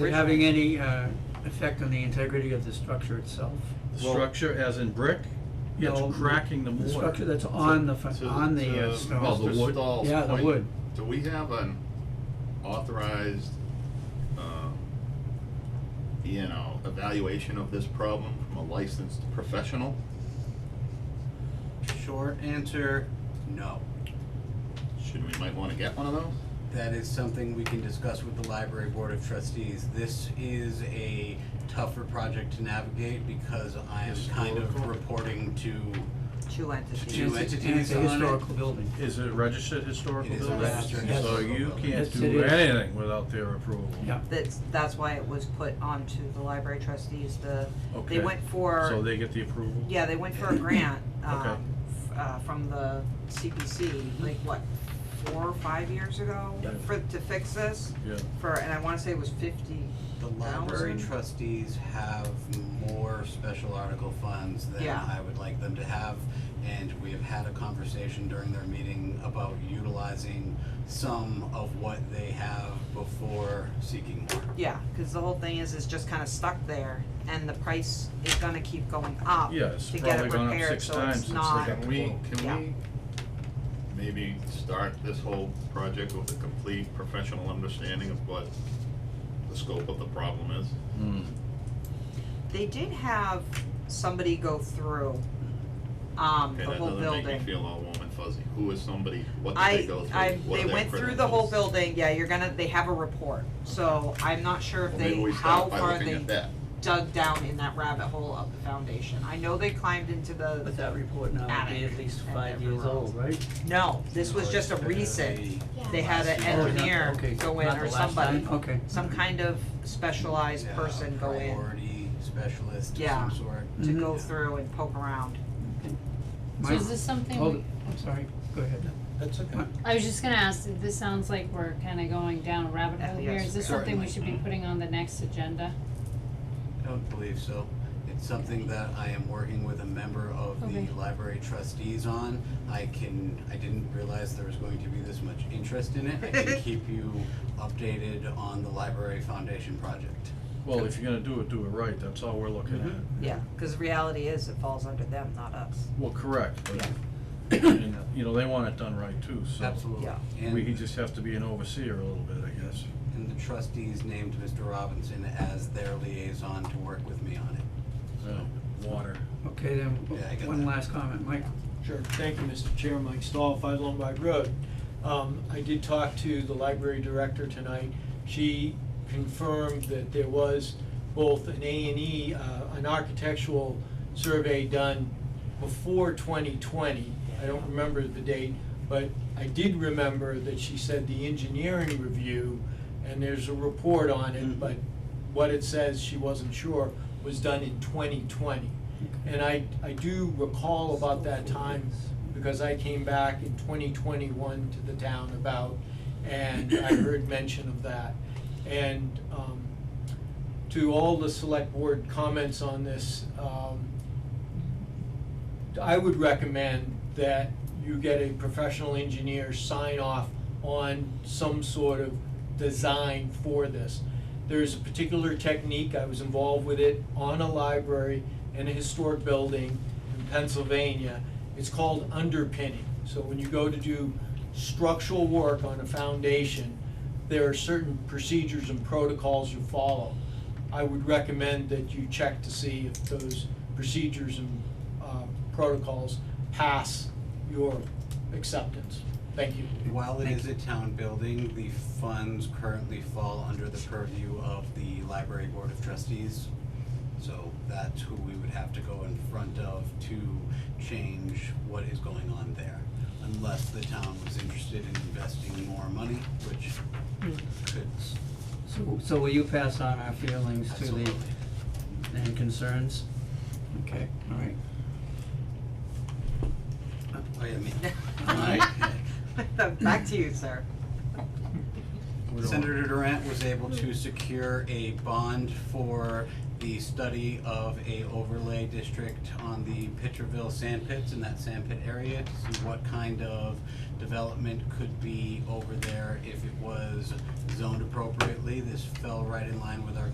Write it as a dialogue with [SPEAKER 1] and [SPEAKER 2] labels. [SPEAKER 1] Having any uh, effect on the integrity of the structure itself?
[SPEAKER 2] The
[SPEAKER 3] Well-
[SPEAKER 2] structure as in brick?
[SPEAKER 1] No,
[SPEAKER 2] It's cracking the
[SPEAKER 1] The structure
[SPEAKER 2] mortar.
[SPEAKER 1] that's on the, fu-
[SPEAKER 4] To-
[SPEAKER 1] on the uh,
[SPEAKER 4] to
[SPEAKER 2] Oh,
[SPEAKER 1] stone?
[SPEAKER 2] the
[SPEAKER 4] Mr.
[SPEAKER 2] wood?
[SPEAKER 4] Stahl's
[SPEAKER 1] Yeah, the
[SPEAKER 4] point,
[SPEAKER 1] wood.
[SPEAKER 4] Do we have an authorized, um, you know, evaluation of this problem from a licensed professional?
[SPEAKER 3] Short answer, no.
[SPEAKER 4] Should, we might wanna get one of those?
[SPEAKER 3] That is something we can discuss with the library board of trustees. This is a tougher project to navigate because I am kind of
[SPEAKER 2] Historical.
[SPEAKER 3] reporting to,
[SPEAKER 5] Two
[SPEAKER 1] And
[SPEAKER 5] entities.
[SPEAKER 3] Two
[SPEAKER 1] it's- And it's
[SPEAKER 3] entities
[SPEAKER 1] a
[SPEAKER 3] on it.
[SPEAKER 1] historical building.
[SPEAKER 2] Is it a registered historical
[SPEAKER 3] It is a
[SPEAKER 2] building?
[SPEAKER 3] registered
[SPEAKER 1] Yes.
[SPEAKER 2] So
[SPEAKER 3] historical
[SPEAKER 2] you
[SPEAKER 3] building.
[SPEAKER 2] can't
[SPEAKER 1] Yes, it
[SPEAKER 2] do
[SPEAKER 1] is.
[SPEAKER 2] anything without their approval?
[SPEAKER 1] Yeah.
[SPEAKER 5] That's, that's why it was put onto the library trustees, the,
[SPEAKER 2] Okay.
[SPEAKER 5] they went for.
[SPEAKER 2] So they get the approval?
[SPEAKER 5] Yeah, they went for a grant,
[SPEAKER 2] Okay.
[SPEAKER 5] um, f- uh, from the CPC, like what, four or five years ago?
[SPEAKER 2] Yeah.
[SPEAKER 5] For, to fix this,
[SPEAKER 2] Yeah,
[SPEAKER 5] for, and I wanna say it was fifty,
[SPEAKER 3] the library
[SPEAKER 5] Thousand?
[SPEAKER 3] trustees have more special article funds than
[SPEAKER 5] Yeah.
[SPEAKER 3] I would like them to have. And we have had a conversation during their meeting about utilizing some of what they have before seeking more.
[SPEAKER 5] yeah, cause the whole thing is, is just kinda stuck there, and the price is gonna keep going up
[SPEAKER 2] Yeah, it's
[SPEAKER 5] to get
[SPEAKER 2] probably
[SPEAKER 5] it
[SPEAKER 2] gone up
[SPEAKER 5] repaired,
[SPEAKER 2] six
[SPEAKER 5] so
[SPEAKER 2] times
[SPEAKER 5] it's
[SPEAKER 2] since they
[SPEAKER 5] not,
[SPEAKER 2] got
[SPEAKER 4] Can we,
[SPEAKER 5] Yeah.
[SPEAKER 4] can we maybe start this whole project with a complete professional understanding of what the scope of the problem is?
[SPEAKER 2] Hmm.
[SPEAKER 5] they did have somebody go through, um,
[SPEAKER 4] Okay,
[SPEAKER 5] the
[SPEAKER 4] that
[SPEAKER 5] whole building.
[SPEAKER 4] doesn't make me feel all warm and fuzzy. Who is somebody, what did they
[SPEAKER 5] I,
[SPEAKER 4] go through?
[SPEAKER 5] I,
[SPEAKER 4] What
[SPEAKER 5] they
[SPEAKER 4] are their
[SPEAKER 5] went through the whole
[SPEAKER 4] credentials?
[SPEAKER 5] building, yeah, you're gonna, they have a report, so I'm not sure if
[SPEAKER 4] Well,
[SPEAKER 5] they,
[SPEAKER 4] maybe we
[SPEAKER 5] how
[SPEAKER 4] start by
[SPEAKER 5] far
[SPEAKER 4] looking
[SPEAKER 5] they
[SPEAKER 4] at that.
[SPEAKER 5] dug down in that rabbit hole of the foundation. I know they climbed into
[SPEAKER 1] But
[SPEAKER 5] the,
[SPEAKER 1] that report now would be at least
[SPEAKER 5] Attic and
[SPEAKER 1] five years
[SPEAKER 5] everywhere
[SPEAKER 1] old, right?
[SPEAKER 5] no, this was just a
[SPEAKER 3] Or
[SPEAKER 5] recent,
[SPEAKER 3] the
[SPEAKER 5] they had an
[SPEAKER 3] last year.
[SPEAKER 1] Oh, not-
[SPEAKER 5] engineer
[SPEAKER 1] okay,
[SPEAKER 5] go in
[SPEAKER 1] not the
[SPEAKER 5] or
[SPEAKER 1] last
[SPEAKER 5] somebody,
[SPEAKER 1] time, Okay.
[SPEAKER 5] some kind of specialized
[SPEAKER 3] Yeah,
[SPEAKER 5] person go in
[SPEAKER 3] Priority specialist of
[SPEAKER 5] Yeah.
[SPEAKER 3] some sort.
[SPEAKER 5] to
[SPEAKER 1] Mhm.
[SPEAKER 5] go through and poke around.
[SPEAKER 6] So is this something,
[SPEAKER 1] Hold
[SPEAKER 6] we-
[SPEAKER 1] it, I'm sorry, go ahead.
[SPEAKER 2] That's okay.
[SPEAKER 6] I was just gonna ask, this sounds like we're kinda going down a rabbit hole here,
[SPEAKER 5] Yes,
[SPEAKER 6] is this something we should be
[SPEAKER 3] certainly.
[SPEAKER 6] putting on the next agenda?
[SPEAKER 3] I don't believe so. It's something that I am working with a member of the
[SPEAKER 6] Okay.
[SPEAKER 3] library trustees on. I can, I didn't realize there was going to be this much interest in it. I can keep you updated on the library foundation project.
[SPEAKER 2] Well, if you're gonna do it, do it right, that's all we're looking at.
[SPEAKER 5] Mm-hmm. Yeah, cause reality is it falls under them, not us.
[SPEAKER 2] Well, correct, but, and, you know, they want it done right too, so.
[SPEAKER 3] Absolutely.
[SPEAKER 5] Yeah.
[SPEAKER 2] We
[SPEAKER 3] And,
[SPEAKER 2] just have to be an overseer a little bit, I guess.
[SPEAKER 3] and the trustees named Mr. Robinson as their liaison to work with me on it.
[SPEAKER 2] Yeah, Water.
[SPEAKER 1] Okay, then,
[SPEAKER 3] Yeah, I got
[SPEAKER 1] one
[SPEAKER 3] that.
[SPEAKER 1] last comment, Mike.
[SPEAKER 7] Sure, thank you, Mr. Chair, Mike Stahl, Five Lombard Road. Um, I did talk to the library director tonight. She confirmed that there was both an A and E, uh, an architectural survey done before twenty twenty. I don't remember the date, but I did remember that she said the engineering review, and there's a report on it, but what it says, she wasn't sure, was done in twenty twenty. And I, I do recall about that time, because I came back in twenty twenty-one to the town about, and I heard mention of that. And, um, to all the select board comments on this, um, I would recommend that you get a professional engineer sign off on some sort of design for this. There's a particular technique, I was involved with it on a library in a historic building in Pennsylvania. It's called underpinning. So when you go to do structural work on a foundation, there are certain procedures and protocols you follow. I would recommend that you check to see if those procedures and uh, protocols pass your acceptance. Thank you.
[SPEAKER 3] While it is a town building, the funds currently fall under the purview of the library board of trustees. So that's who we would have to go in front of to change what is going on there. Unless the town was interested in investing more money, which
[SPEAKER 7] Hmm.
[SPEAKER 3] could,
[SPEAKER 1] So, so will you pass on our feelings to
[SPEAKER 3] absolutely.
[SPEAKER 1] the, and concerns? Okay, all right.
[SPEAKER 3] Wait a minute. All right.
[SPEAKER 5] Back to you, sir.
[SPEAKER 2] We don't-
[SPEAKER 3] Senator Durant was able to secure a bond for the study of a overlay district on the Pitcherville sand pits in that sand pit area to see what kind of development could be over there if it was zoned appropriately. This fell right in line with our